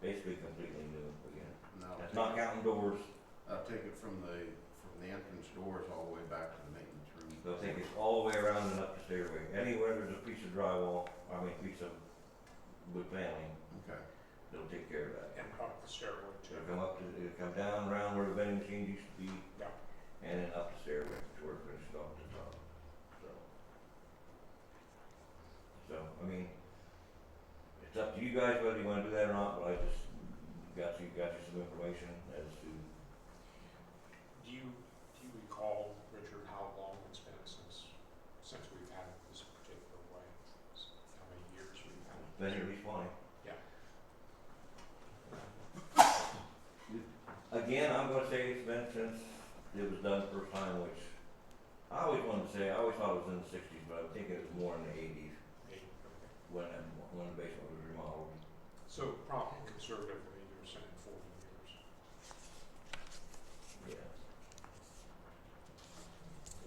basically completely new again. And I'll That's take- not counting doors, I'll take it from the, from the entrance doors all the way back to the maintenance room. they'll take it all the way around and up the stairway. Anywhere there's a piece of drywall, I mean, piece of wood paneling, Okay, they'll take care of that. and park the stairway too. It'll come up to, it'll come down around where the vending machine used to be. Yeah. And then up the stairway to where it finished off the top, so. So, I mean, it's up to you guys whether you wanna do that or not, but I just got you, got you some information as to, Do you, do you recall, Richard, how long it's been since, since we've had it this particular way? S- How many years we've had it? then you're responding. Again, Yeah. I'm gonna say it's been since it was done the first time, which I always wanted to say, I always thought it was in the sixties, but I think it was more in the eighties Eight, okay. when, when the basement was remodeled. So probably conservatively, you're saying forty years. Yeah.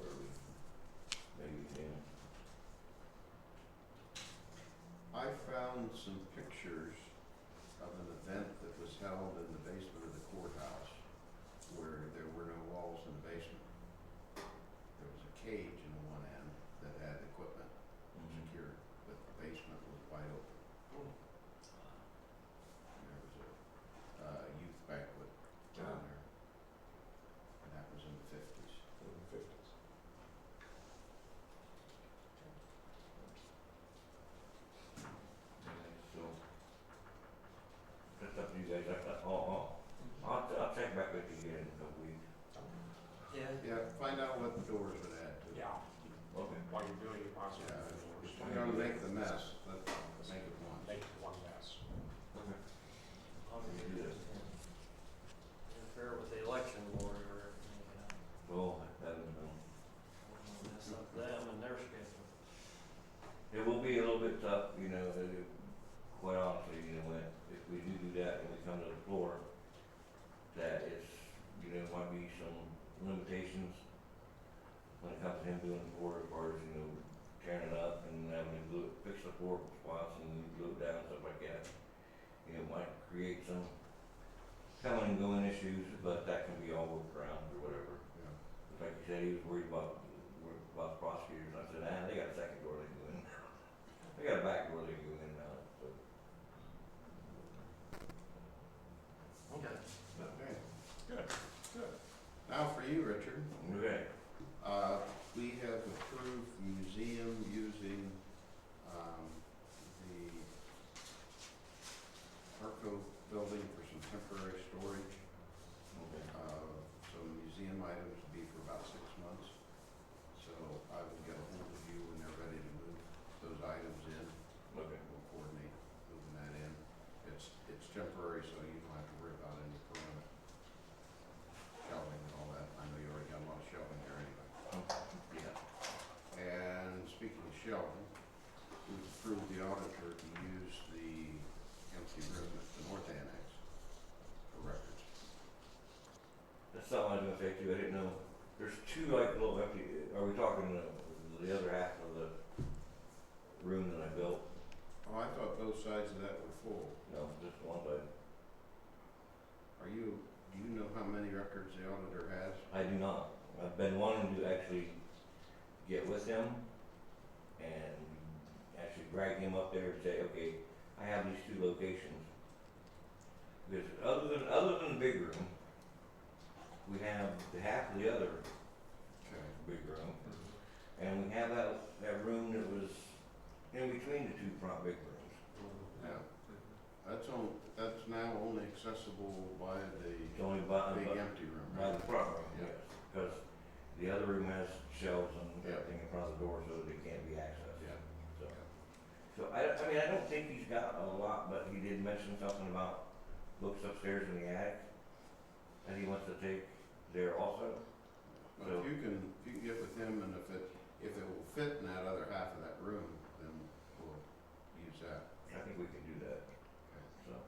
Or we, maybe, yeah. I found some pictures of an event that was held in the basement of the courthouse where there were no walls in the basement. There was a cage in one end that had equipment Mm-hmm. secured, but the basement was wide open. There was a, uh, youth banquet down there. And that was in the fifties. In the fifties. So. That's up to you guys, I, I, I'll, I'll, I'll, I'll check back with you again in a couple weeks. Yeah, find out what the doors would add to. Yeah, Okay. while you're doing it, might as well. Yeah, If we're gonna do the doors. make the mess, let's make it one. Make it one less. Okay. Interfere with the election board or, you Well, that is, um, know, mess up them and their schedule. it will be a little bit tough, you know, it, it- quite honestly, you know, when, if we do do that and we come to the floor, that it's, you know, might be some limitations when it comes to him doing the floor as far as, you know, tearing it up and having to glue, it- fix the floor spots and glue it down, stuff like that. You know, it might create some coming and going issues, but that can be all worked around or whatever. Yeah. Like you said, he was worried about, worried about prosecutors, and I said, ah, they got a second door they can go in. They got a back door they can go in now, so. Okay. Okay. Good, good. Now for you, Richard. Okay. Uh, we have approved museum using, um, the Arco building for some temporary storage, Okay. uh, some museum items to be for about six months. So I will get ahold of you when they're ready to move those items in. Okay. We'll coordinate moving that in. It's, it's temporary, so you don't have to worry about any permanent shelving and all that. I know you already got a lot of shelving there anyway. Yeah. And speaking of shelving, we approved the auditor to use the empty room at the north annex for records. That's something I was gonna say too, I didn't know, there's two like little empty, are we talking uh, the, the other half of the room that I built? Oh, I thought both sides of that were full. No, just one, but Are you, do you know how many records the auditor has? I do not. I've been wanting to actually get with him and actually drag him up there and say, okay, I have these two locations. Because other than, other than the big room, we have the half of the other Okay. big room. And we have that, that room that was in between the two front big rooms. Yeah, that's on, that's now only accessible by the It's only by, big by- empty room, by right? the front room, yes. Because the other room has shelves and Yeah. everything in front of the door so that it can't be accessed. Yeah. So, so I, I mean, I don't think he's got a lot, but he did mention something about books upstairs in the attic that he wants to take there also. But if you can, if you can get with him and if it, if it will fit in that other half of that room, then we'll use that. I think we can do that.